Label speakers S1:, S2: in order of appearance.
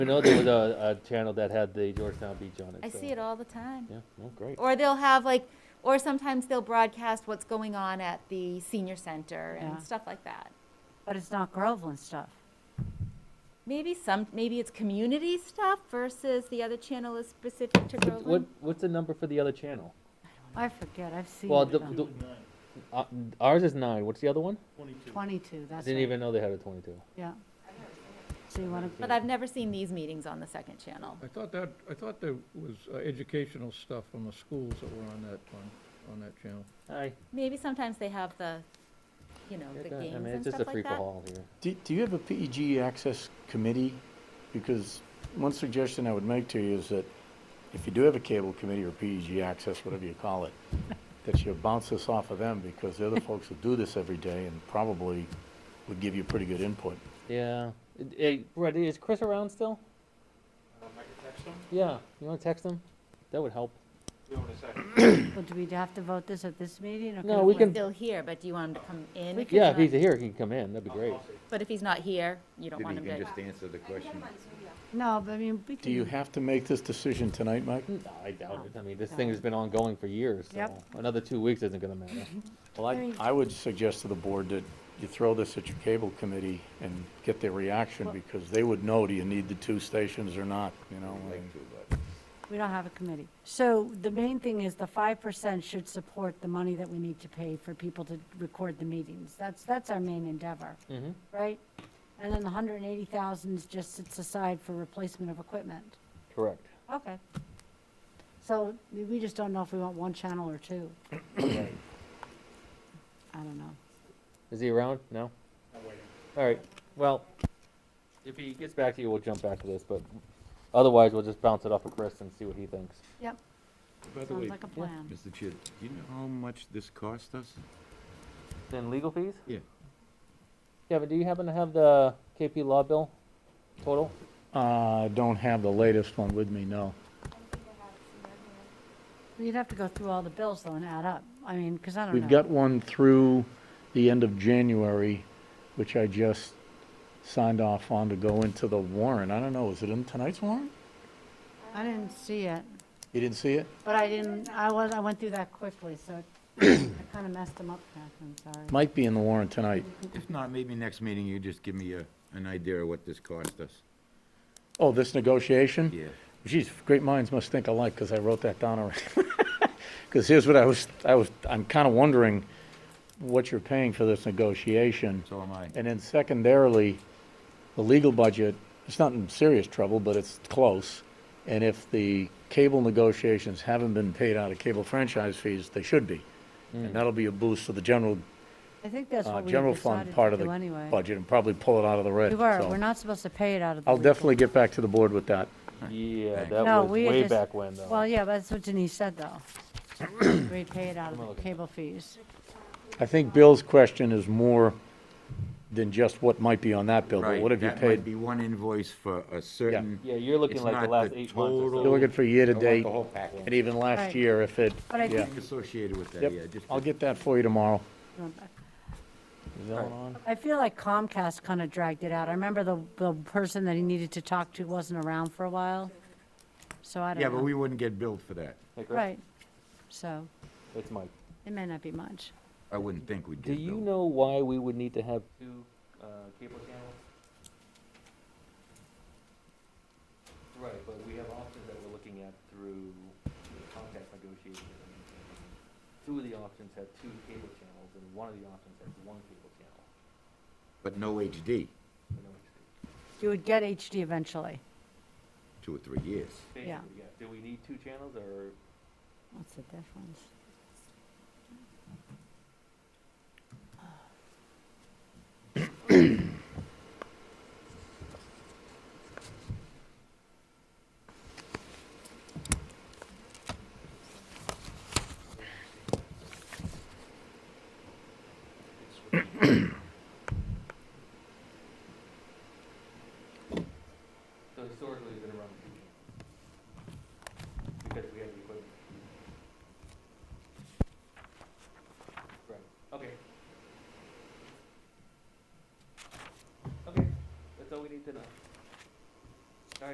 S1: We know there was a, a channel that had the Georgetown Beach on it.
S2: I
S1: so-
S2: see it all the time.
S1: Yeah, no, great.
S2: Or they'll have like, or sometimes they'll broadcast what's going on at the senior center
S3: Yeah.
S2: and stuff like that.
S3: But it's not Groveland stuff.
S2: Maybe some, maybe it's community stuff versus the other channel is specific to
S1: What- What,
S2: Groveland.
S1: what's the number for the other channel?
S3: I forget, I've seen
S1: Well,
S3: it
S1: the,
S3: on
S1: the, uh, ours is nine, what's the other one?
S3: twenty-two, that's
S1: Didn't
S3: right.
S1: even know they had a twenty-two.
S3: Yeah. So you wanna,
S2: But I've never seen these meetings on the second channel.
S4: I thought that, I thought there was uh, educational stuff from the schools that were on that one, on that channel.
S1: Aye.
S2: Maybe sometimes they have the, you know, the
S1: I
S2: games
S1: mean,
S2: and
S1: it's just a
S2: stuff like that.
S1: free-for-all here.
S5: Do, do you have a PEG access committee? Because one suggestion I would make to you is that if you do have a cable committee or PEG access, whatever you call it, that you bounce this off of them because they're the folks that do this every day and probably would give you pretty good input.
S1: Yeah. It- it- Brett, is Chris around still? Yeah, you wanna text him? That would help.
S3: well, do we have to vote this at this meeting? or
S1: No,
S3: it
S1: we
S3: wait?
S1: can-
S2: Still here, but do you want him to come in? if he's
S1: Yeah, if
S2: not-
S1: he's here, he can come in, that'd be great.
S2: But if he's not here, you don't
S6: Maybe
S2: want him
S6: you
S2: to.
S6: can just answer the question.
S3: No, but I mean, we can.
S5: Do you have to make this decision tonight, Mike?
S1: No, I
S2: Oh,
S1: doubt it, I mean, this thing has been ongoing for years, so
S3: Yep.
S1: another two weeks isn't gonna matter.
S5: Well, I, I would suggest to the board that you throw this at your cable committee and get their reaction because they would know, do you need the two stations or not, you know?
S6: I'd
S5: and-
S6: like to, but
S3: We don't have a committee. So the main thing is the five percent should support the money that we need to pay for people to record the meetings. That's, that's our main endeavor,
S1: Mhm.
S3: right? And then the hundred and eighty thousand is just sits aside for replacement of equipment.
S1: Correct.
S3: Okay. So we- we just don't know if we want one channel or two. I don't know.
S1: Is he around? No? All right, well, if he gets back to you, we'll jump back to this, but otherwise, we'll just bounce it off of Chris and see what he thinks.
S3: Yep,
S6: By the
S3: sounds
S6: way,
S3: like a plan.
S6: Mr. Chair, do you know how much this cost us?
S1: Then legal fees?
S6: Yeah.
S1: Kevin, do you happen to have the KP Law bill total?
S5: Uh, I don't have the latest one with me, no.
S3: You'd have to go through all the bills though and add up. I mean, because I don't know.
S5: We've got one through the end of January, which I just signed off on to go into the warrant. I don't know, is it in tonight's warrant?
S3: I didn't see it,
S5: You didn't see it?
S3: but I didn't, I was, I went through that quickly, so I kind of messed them up, Catherine, sorry.
S5: Might be in the warrant tonight.
S6: If not, maybe next meeting you just give me a, an idea of what this cost us.
S5: Oh, this negotiation?
S6: Yeah.
S5: Geez, great minds must think alike, because I wrote that down already. Because here's what I was, I was, I'm kind of wondering what you're paying for this negotiation.
S6: So am I.
S5: And then secondarily, the legal budget, it's not in serious trouble, but it's close. And if the cable negotiations haven't been paid out of cable franchise fees, they should be.
S6: Hmm.
S5: And that'll be a boost to the general,
S3: I think that's
S5: uh,
S3: what we
S5: general fund
S3: decided
S5: part
S3: to
S5: of
S3: do
S5: the
S3: anyway.
S5: budget and probably pull it out of the red.
S3: We were,
S5: So
S3: we're not supposed to pay it out of the.
S5: I'll
S3: legal.
S5: definitely get back to the board with that.
S1: Yeah,
S6: Thanks.
S1: that
S3: No,
S1: was
S3: we had
S1: way
S3: just-
S1: back when, though.
S3: Well, yeah, but that's what Denise said though. We pay it out of
S1: I'm
S3: the
S1: looking.
S3: cable fees.
S5: I think Bill's question is more than just what might be on that bill, but
S6: Right,
S5: what have you
S6: That might
S5: paid?
S6: be one invoice for a certain.
S1: Yeah, you're looking
S6: It's
S1: like the
S6: not
S1: last
S6: the
S1: eight months or
S6: total-
S5: You're
S1: so.
S5: looking for year-to-date,
S6: I want the whole
S5: and
S6: package.
S5: even last
S3: Right.
S5: year, if it,
S3: But I
S5: yeah.
S3: think-
S6: Associated with that, yeah.
S5: Yep,
S6: just-
S5: I'll get that for you tomorrow. Is that
S1: Alright.
S5: on?
S3: I feel like Comcast kind of dragged it out. I remember the, the person that he needed to talk to wasn't around for a while. So I don't know.
S6: Yeah, but we wouldn't get billed for that.
S1: Hey, Chris?
S3: Right. So
S1: It's Mike.
S3: it may not be much.
S6: I wouldn't think we'd
S1: Do
S6: get
S1: you
S6: billed.
S1: know why we would need to have two uh, cable channels? Right, but we have options that we're looking at through the contract negotiations. and everything. Two of the options have two cable channels, and one of the options has one cable channel.
S6: But no
S1: You
S6: HD,
S1: know, it's-
S3: You would get HD eventually.
S6: two or three years.
S3: Yeah.
S1: basically, yeah. Do we need two channels, or?
S3: What's the difference?
S1: So historically, it's been around two channels. Because we have the equipment. Right, okay. Okay, that's all we need to know.